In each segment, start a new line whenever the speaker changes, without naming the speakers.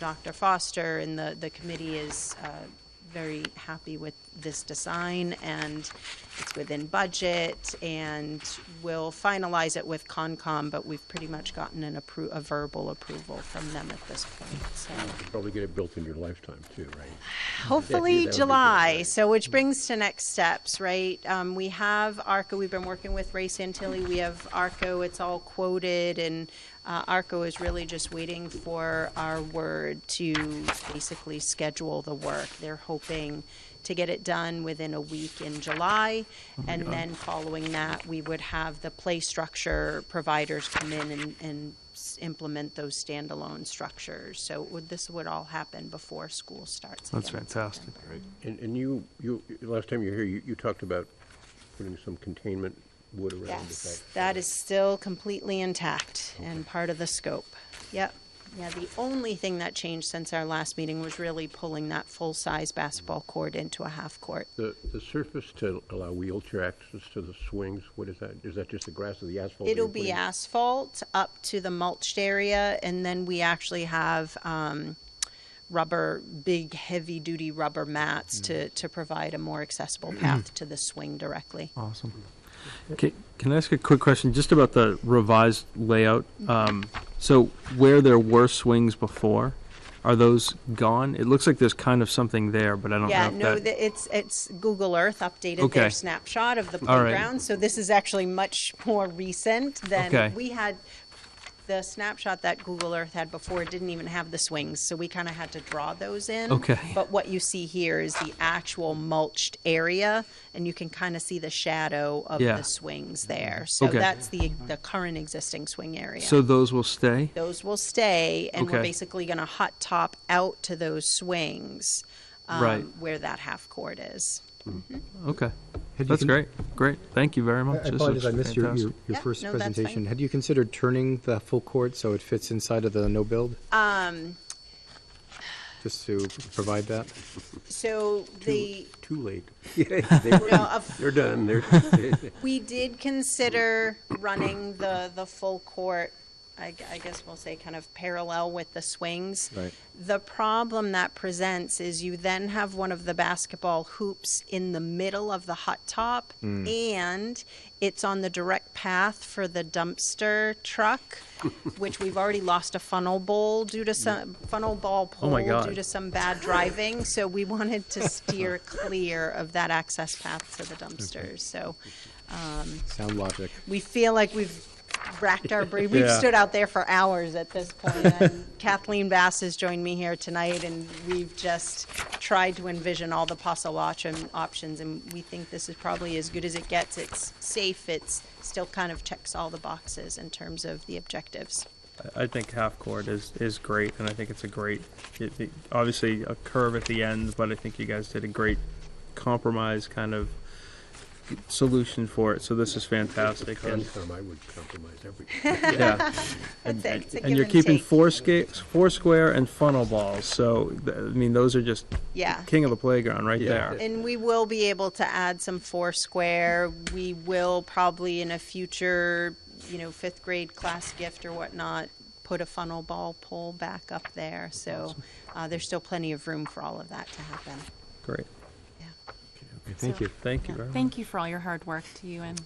Dr. Foster and the, the committee is uh, very happy with this design and it's within budget and we'll finalize it with Concom, but we've pretty much gotten an appro, a verbal approval from them at this point, so.
Probably get it built in your lifetime too, right?
Hopefully
that would be
July,
great.
so which brings to next steps, right? Um, we have ARCO, we've been working with Ray Santilli, we have ARCO, it's all quoted, and, uh, ARCO is really just waiting for our word to basically schedule the work. They're hoping to get it done within a week in July, and then following that, we would have the play structure providers come in and, and s- implement those standalone structures. So would, this would all happen before school starts
That's
again.
fantastic.
Right. And, and you, you, last time you were here, you, you talked about putting some containment wood around the back.
Yes, that is still completely intact and part of the scope. Yep. Yeah, the only thing that changed since our last meeting was really pulling that full-size basketball court into a half court.
The, the surface to allow wheelchair access to the swings, what is that? Is that just the grass or the asphalt? that
It'll
you're
be
putting?
asphalt up to the mulched area, and then we actually have um, rubber, big, heavy-duty rubber mats to, to provide a more accessible path to the swing directly.
Awesome. Can, can I ask a quick question just about the revised layout? Um, so where there were swings before, are those gone? It looks like there's kind of something there, but I don't
Yeah,
know
no,
if that.
the- it's, it's Google Earth updated
Okay.
their snapshot of the
All right.
playground, so this is actually much more recent
Okay.
than, we had, the snapshot that Google Earth had before didn't even have the swings, so we kind of had to draw those in.
Okay.
But what you see here is the actual mulched area, and you can kind of see the shadow of
Yeah.
the swings there. So
Okay.
that's the, the current existing swing area.
So those will stay?
Those will stay, and we're
Okay.
basically going to hot top out to those swings um,
Right.
where that half court is.
Okay.
Had you
That's
con-
great. Great. Thank you very
I- I
much. This
apologize, I
looks
missed your, your,
fantastic.
your
Yeah,
first
no, that's fine.
presentation. Had you considered turning the full court so it fits inside of the no-build? Um. Just to provide that?
So the
Too late. Yeah, they were-
no, a
They're done, they're, they-
We did consider running the, the full court, I, g- I guess we'll say kind of parallel with the swings.
Right.
The problem that presents is you then have one of the basketball hoops in the middle of the hot top
Mm.
and it's on the direct path for the dumpster truck, which we've already lost a funnel bowl due to some, funnel ball
Oh
pole
my God.
due to some bad driving. So we wanted to steer clear of that access path to the dumpsters, so
Sound logic.
we feel like we've racked our brain. We've
Yeah.
stood out there for hours at this point. And Kathleen Bass has joined me here tonight, and we've just tried to envision all the possible option, options. And we think this is probably as good as it gets. It's safe. It's still kind of checks all the boxes in terms of the objectives.
I think half court is, is great, and I think it's a great, it, it- obviously a curve at the end, but I think you guys did a great compromise kind of solution for it. So this is fantastic. And,
Concom, I would compromise everything.
yeah.
That's it. It's a
and you're
give and
keeping
take.
four, sca- four square and funnel balls. So, th- I mean, those are just
Yeah.
king of the playground right
Yeah.
there.
And we will be able to add some Foursquare. We will probably in a future, you know, fifth grade class gift or whatnot, put a funnel ball pole back up there. So uh, there's still plenty of room for all of that to happen.
Great.
Yeah.
Thank you.
Thank you very much.
Thank you for all your hard work to you and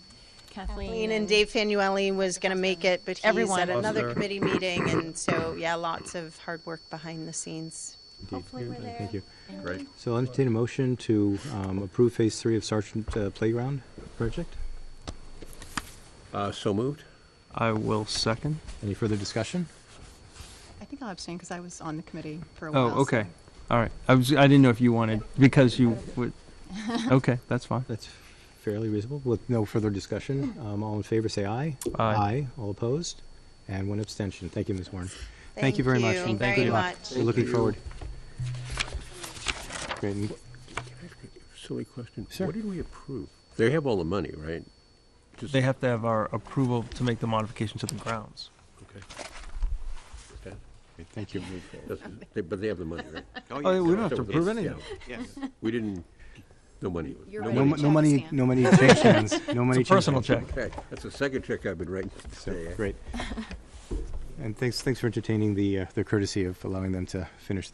Kathleen.
Lean and Dave Fanuelli was going to make it, but he's
Everyone.
at another
Awesome.
committee meeting. And so, yeah, lots of hard work behind the scenes.
Indeed.
Hopefully we're there.
Thank you.
Right.
So I'll entertain a motion to um, approve Phase Three of Sergeant uh, Playground Project.
Uh, so moved?
I will second.
Any further discussion?
I think I'll abstain because I was on the committee for a while.
Oh,
so-
okay. All right. I was, I didn't know if you wanted, because you would, okay, that's fine.
That's fairly reasonable. With no further discussion, um, all in favor, say aye.
Aye.
All opposed? And one abstention. Thank you, Ms. Warren.
Thank
you very much.
you
and
very
good luck.
much.
We're looking forward. Great. and-
Silly question.
Sure.
What did we approve? They have all the money, right? Just-
They have to have our approval to make the modification to the grounds.
Okay. Okay.
Thank you.
That's- they- But they have the money, right?
Oh, yeah, we don't have to
So
approve
that's-
anything.
yeah. We didn't, no money.
You're
no
right.
No,
money.
mo- no money, no money change hands. No money
It's a
change
personal
hands.
check.
Okay, that's the second check I've been writing today. eh?
Great. And thanks, thanks for entertaining the, uh, the courtesy of allowing them to finish their